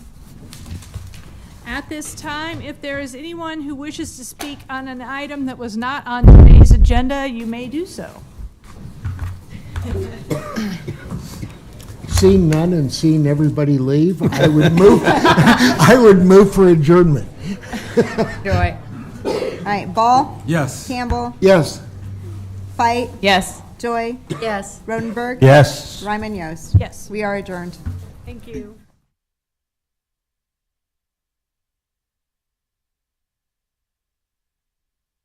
At this time, if there is anyone who wishes to speak on an item that was not on today's agenda, you may do so. Seeing none and seeing everybody leave, I would move, I would move for adjournment. Joy. All right, Ball, Yes. Campbell, Yes. Fight, Yes. Joy, Yes. Rodenberg, Yes. Ryman Yost. Yes, We are adjourned. thank you.